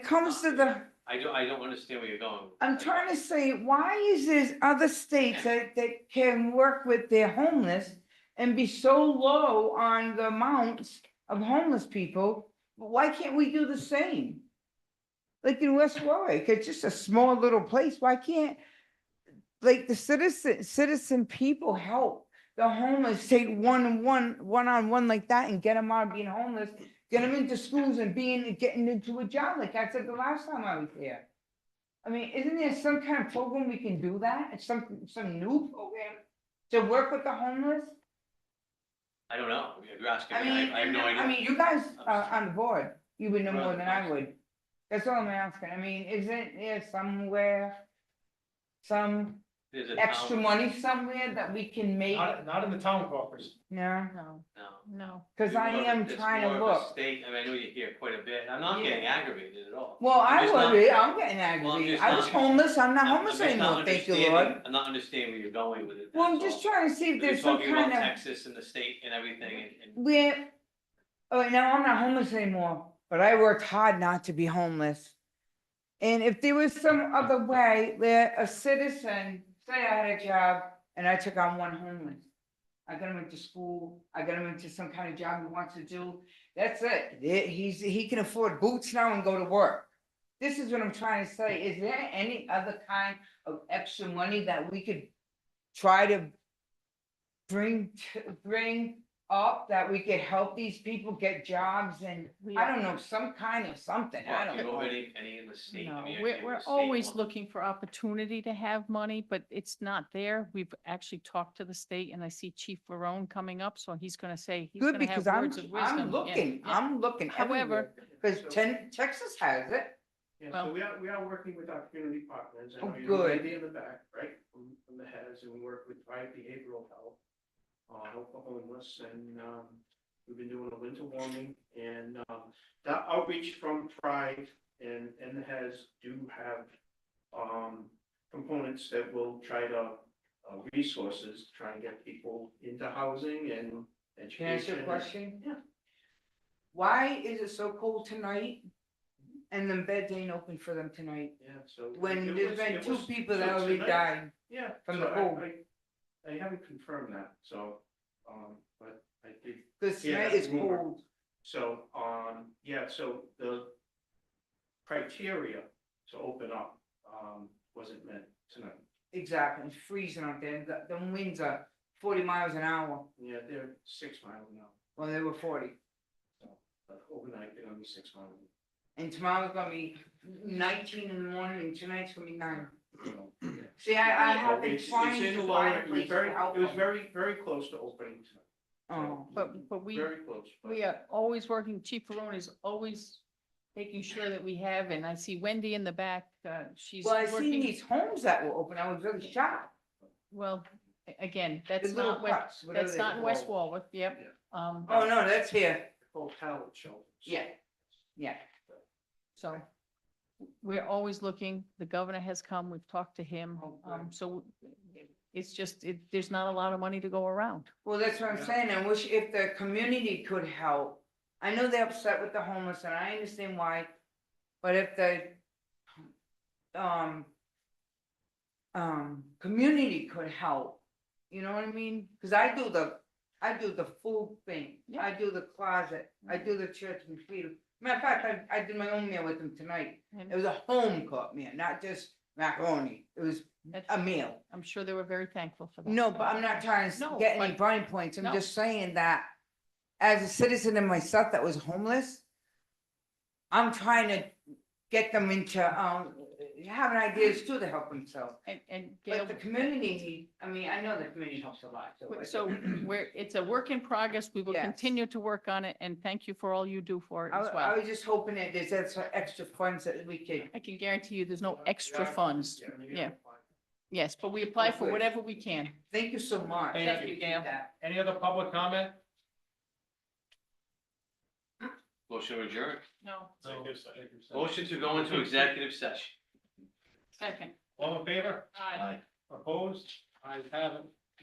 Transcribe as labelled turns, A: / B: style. A: comes to the,
B: I don't, I don't understand where you're going.
A: I'm trying to say, why is there other states that, that can work with their homeless and be so low on the amounts of homeless people? But Why can't we do the same? Like in West Warwick, it's just a small little place. Why can't, like, the citizen, citizen people help the homeless take one and one, one on one like that and get them out of being homeless, get them into schools and being, getting into a job, like I said the last time I was here. I mean, isn't there some kind of program we can do that? It's Some, some new program to work with the homeless?
B: I don't know, you're asking
A: I
B: me,
A: mean,
B: I, I have no
A: I
B: idea.
A: mean, you guys are on the board, you would know
B: We're on
A: more
B: the
A: than I
B: board.
A: would. That's all I'm asking. I mean, isn't there somewhere, some
B: There's a
A: extra
B: town-
A: money somewhere that we can make?
C: Not, not in the town coffers.
A: No,
D: No,
B: No.
D: no.
A: cause I
B: It's
A: am
B: more- it's
A: trying to
B: more of a
A: look.
B: State, I mean, I know you hear quite a bit, I'm not
A: Yeah.
B: getting aggravated at all.
A: Well, I
B: just not-
A: would, be. I'm getting
B: Well, I'm
A: aggravated.
B: just
A: I was
B: not-
A: homeless. I'm not
B: I'm- I'm
A: homeless
B: just not
A: anymore, thank you,
B: understanding-
A: Lord.
B: I'm not understanding where you're going with it.
A: Well, I'm
B: that's
A: just
B: all.
A: trying to see if
B: You're
A: there's some
B: talking about
A: kind of.
B: Texas and the state and everything and- and.
A: We're, oh, now I'm not homeless anymore, but I worked hard not to be homeless. And if there was some other way where a citizen, say I had a job and I took on one homeless. I got him into school, I got him into some kind of job he wants to do, that's it, There- he's, he can afford boots now and go to work. This is what I'm trying to say, is there any other kind of extra money that we could try to bring, to- bring up that we could help these people get jobs and,
D: we
A: I
D: are-
A: don't know, some kind of something, I
B: Do
A: don't
B: you know
A: know.
B: any, any in the state? I
D: No,
B: mean, I
D: we're,
B: hear
D: we're
B: the state
D: always
B: one.
D: looking for opportunity to have money, but it's not there. We've actually talked to the state and I see Chief Verone coming up, so he's gonna say, he's
A: Good,
D: gonna have
A: because I'm,
D: words of wisdom.
A: I'm
D: Yeah,
A: looking,
D: yeah.
A: I'm looking everywhere,
D: However-
A: because Texas has it.
C: Yeah, so
D: Well-
C: we are, we are working with our community partners, I
A: Oh,
C: know you have an
A: good.
C: idea in the back, right, from, from the heads, and we work with Thrive Behavioral Health. Uh, help the homeless, and, um, we've been doing a winter warming, and, um, that outreach from Thrive and, and the heads do have, um, components that will try to, uh, resources, to try and get people into housing and education.
A: Can I ask you a question?
C: Yeah.
A: Why is it so cold tonight? And the beds ain't open for them tonight,
C: Yeah, so.
A: when
C: it
A: there's
C: was-
A: been
C: it
A: two
C: was-
A: people
C: so
A: that already
C: tonight-
A: died.
C: Yeah.
A: from
C: so
A: the
C: I-
A: home.
C: I- I haven't confirmed that, so, um, but I did,
A: Cause
C: Yeah,
A: tonight
C: that's
A: is
C: more.
A: cold,
C: so, um, yeah, so the criteria to open up, um, wasn't met tonight.
A: exactly, it's freezing out there, the, the winds are forty miles an hour,
C: Yeah, they're six miles now,
A: well, they were forty.
C: but overnight they're gonna be six miles.
A: And tomorrow's gonna be nineteen in the morning, and tonight's gonna be nine.
C: you know, yeah.
A: See, I, I have
C: So
A: been
C: it's- it's
A: trying
C: in
A: to
C: low,
A: find a
C: it was
A: place
C: very-
A: to help
C: It was
A: them.
C: very, very close to opening tonight.
A: Oh,
D: But, but we,
C: Very close. but-
D: we are always working, Chief Verone is always making sure that we have, and I see Wendy in the back, uh, she's
A: well, I seen
D: working.
A: these homes that were open, I was really shocked,
D: Well, a- again,
A: the
D: that's
A: little
D: not, West-
A: huts, whatever
D: that's
A: they
D: not in
A: call
D: West
A: it.
D: Warwick, yep.
C: Yeah.
D: Um,
A: Oh, no, that's here,
C: Hotel shelters.
A: yeah, yeah.
D: So we're always looking. The governor has come. We've talked to him.
A: Oh, good.
D: Um, so it's just, it, there's not a lot of money to go around.
A: Well, that's what I'm
C: Yeah.
A: saying, I wish if the community could help, I know they're upset with the homeless, and I understand why, but if the. Um. Um, community could help, you know what I mean, cause I do the, I do the food thing,
D: Yeah.
A: I do the closet, I do the church and freedom. Matter of fact, I, I did my own meal with them tonight, it
D: And
A: was a home cooked meal, not just macaroni, it was
D: that's-
A: a meal.
D: I'm sure they were very thankful for that.
A: um, No, but I'm not trying to s-
D: No,
A: get any
D: but-
A: brownie points. I'm
D: No.
A: just saying that as a citizen and myself that was homeless, I'm trying to get them into, um, having ideas too to help themselves.
D: And, and Gail,
A: But the community, I mean, I know the community helps a lot. so I-
D: so we're, it's a work in progress. We will
A: Yes.
D: continue to work on it and thank you for all you do for it
A: I,
D: as
A: wa- I
D: well.
A: was just hoping that there's extra, extra funds that we could,
D: I can guarantee you, there's no
C: Yeah,
D: extra
C: yeah.
D: funds.
C: Yeah.
D: Yeah. Yes, but we apply for
A: Good.
D: whatever we can.
A: thank you so much.
E: Thank
D: Thank you, Gail.
E: Any other public comment?
B: Motion to adjourn.
D: No,
C: Executive
B: Motion to go into executive session.
D: second.
E: All in favor?
D: Aye.
E: Opposed? I have it.